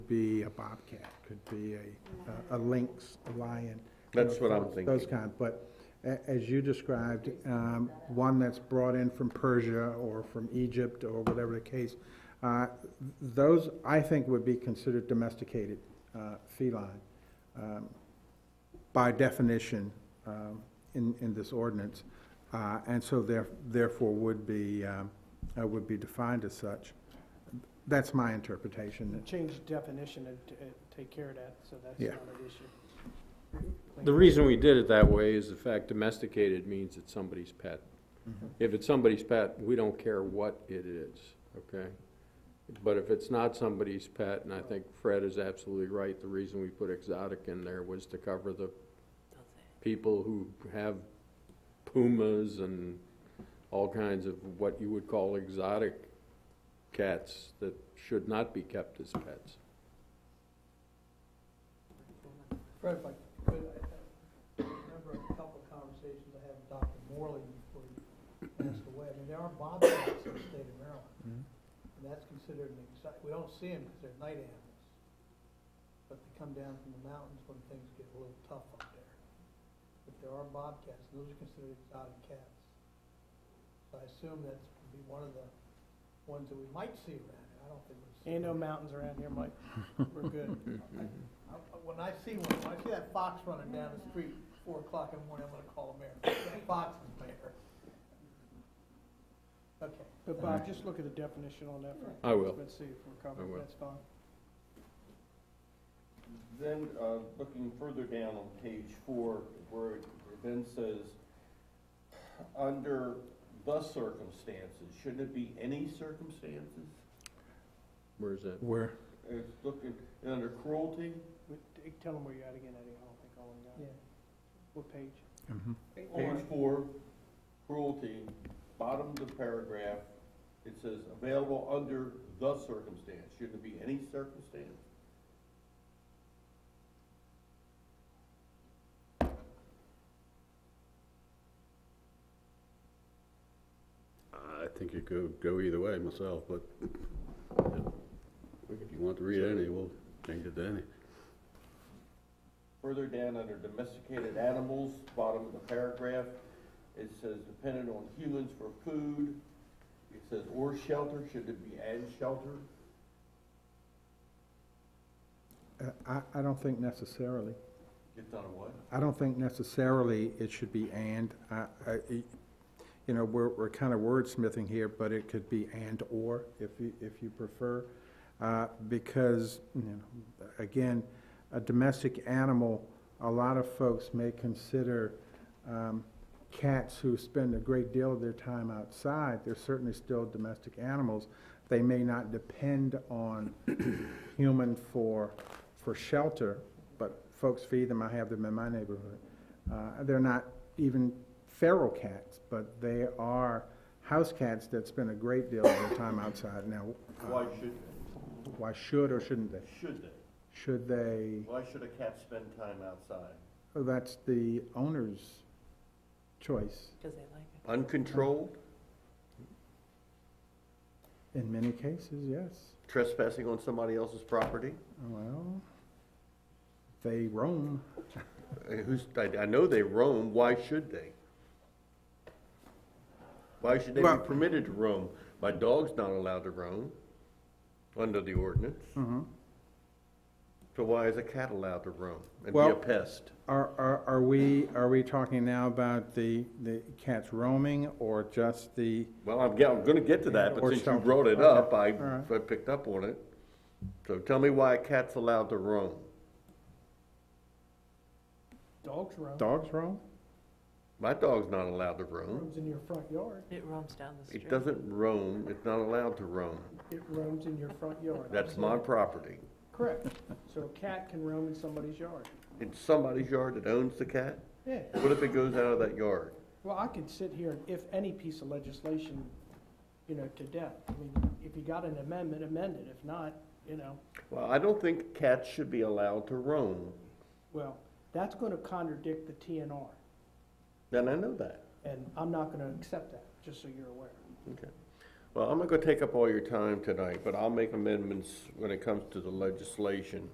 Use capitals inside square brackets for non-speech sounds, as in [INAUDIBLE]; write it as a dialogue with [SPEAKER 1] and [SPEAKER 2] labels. [SPEAKER 1] be a bobcat, could be a, a lynx, a lion. you
[SPEAKER 2] That's
[SPEAKER 1] know,
[SPEAKER 2] what I'm
[SPEAKER 1] those- Those
[SPEAKER 2] thinking.
[SPEAKER 1] kind, but a- as you described, um, one that's brought in from Persia or from Egypt or whatever the case, uh, those, I think, would be considered domesticated uh, feline um, by definition um, in, in this ordinance, uh, and so there- therefore would be, um, uh, would be defined as such. That's my interpretation.
[SPEAKER 3] Change the definition and t- and take care of that, so that's
[SPEAKER 1] Yeah.
[SPEAKER 3] not an issue.
[SPEAKER 2] The reason we did it that way is the fact domesticated means it's somebody's pet. If it's somebody's pet, we don't care what it is, okay? But if it's not somebody's pet, and I think Fred is absolutely right, the reason we put exotic in there was to cover the people who have pumas and all kinds of what you would call exotic cats that should not be kept as pets.
[SPEAKER 4] Fred, if I could, I I remember a couple of conversations I had with Dr. Morley before he passed away. I mean, there are bobcats in the state of Maryland, and that's considered an exotic, we don't see them because they're night animals. But they come down from the mountains when things get a little tough up there. But there are bobcats, and those are considered exotic cats. So I assume that's would be one of the ones that we might see around here. I don't think we'll see.
[SPEAKER 3] Ain't no
[SPEAKER 4] them.
[SPEAKER 3] mountains around here, Mike.
[SPEAKER 4] We're good. I- When I see one, when I see that fox running down the street, four o'clock in the morning, I'm gonna call the mayor. That fox is mayor. Okay.
[SPEAKER 3] But Bob, just look at the definition on that for
[SPEAKER 2] I will.
[SPEAKER 3] Let's see if we're
[SPEAKER 2] I
[SPEAKER 3] covered,
[SPEAKER 2] will.
[SPEAKER 3] that's fine.
[SPEAKER 5] Then, uh, looking further down on page four, where it then says, under the circumstances, shouldn't it be any circumstances?
[SPEAKER 2] Where's that?
[SPEAKER 1] Where?
[SPEAKER 5] It's looking, and under cruelty,
[SPEAKER 3] We- t- eh, Tell them where you're at again, Eddie, I don't think all of them got
[SPEAKER 4] Yeah.
[SPEAKER 3] it. What page?
[SPEAKER 1] Mhm.
[SPEAKER 5] page four, cruelty, bottom of the paragraph, it says, available under the circumstance, shouldn't it be any circumstance?
[SPEAKER 6] I think it could go either way myself, but if you want to read any, we'll change it to any.
[SPEAKER 5] Further down under domesticated animals, bottom of the paragraph, it says dependent on humans for food. It says or shelter, should it be and shelter?
[SPEAKER 1] Uh, I, I don't think necessarily.
[SPEAKER 5] It's not a what?
[SPEAKER 1] I don't think necessarily it should be and. I- I- it- You know, we're, we're kind of wordsmithing here, but it could be and/or if you, if you prefer. uh, Because, you know, again, a domestic animal, a lot of folks may consider um, cats who spend a great deal of their time outside, they're certainly still domestic animals. They may not depend on [COUGHS] human for, for shelter, but folks feed them, I have them in my neighborhood. Uh, they're not even feral cats, but they are house cats that spend a great deal of their time outside. Now,
[SPEAKER 5] Why
[SPEAKER 1] uh,
[SPEAKER 5] should,
[SPEAKER 1] why should or shouldn't they?
[SPEAKER 5] should they?
[SPEAKER 1] Should they,
[SPEAKER 5] Why should a cat spend time outside?
[SPEAKER 1] oh, that's the owner's choice
[SPEAKER 7] Because they like it.
[SPEAKER 5] Uncontrolled,
[SPEAKER 1] in many cases, yes.
[SPEAKER 5] trespassing on somebody else's property?
[SPEAKER 1] Well, they roam.
[SPEAKER 5] Uh, Who's, I, I know they roam, why should they? Why should
[SPEAKER 1] Well-
[SPEAKER 5] permitted to roam? My dog's not allowed to roam under the ordinance.
[SPEAKER 1] Mm-hmm.
[SPEAKER 5] So why is a cat allowed to roam and
[SPEAKER 1] Well-
[SPEAKER 5] be a pest?
[SPEAKER 1] Are, are, are we, are we talking now about the, the cats roaming or just the,
[SPEAKER 5] Well, I'm, yeah, I'm gonna get to that, but
[SPEAKER 1] Or
[SPEAKER 5] since you
[SPEAKER 1] shelter.
[SPEAKER 5] brought it
[SPEAKER 1] Okay,
[SPEAKER 5] up, I,
[SPEAKER 1] all right.
[SPEAKER 5] I picked up on it. So tell me why a cat's allowed to roam.
[SPEAKER 3] Dogs roam,
[SPEAKER 1] dogs roam?
[SPEAKER 5] My dog's not allowed to roam.
[SPEAKER 3] roams in your front yard,
[SPEAKER 7] It roams down the street.
[SPEAKER 5] It doesn't roam, it's not allowed to roam.
[SPEAKER 3] it roams in your front yard.
[SPEAKER 5] That's my property.
[SPEAKER 3] Correct, so a cat can roam in somebody's yard.
[SPEAKER 5] It's somebody's yard that owns the cat.
[SPEAKER 3] Yeah,
[SPEAKER 5] What if it goes out of that yard?
[SPEAKER 3] well, I could sit here, and if any piece of legislation, you know, to death, I mean, if you got an amendment, amend it, if not, you know,
[SPEAKER 5] Well, I don't think cats should be allowed to roam.
[SPEAKER 3] well, that's gonna contradict the TNR,
[SPEAKER 5] Then I know that.
[SPEAKER 3] and I'm not gonna accept that, just so you're aware.
[SPEAKER 5] Okay. Well, I'm not gonna take up all your time tonight, but I'll make amendments when it comes to the legislation.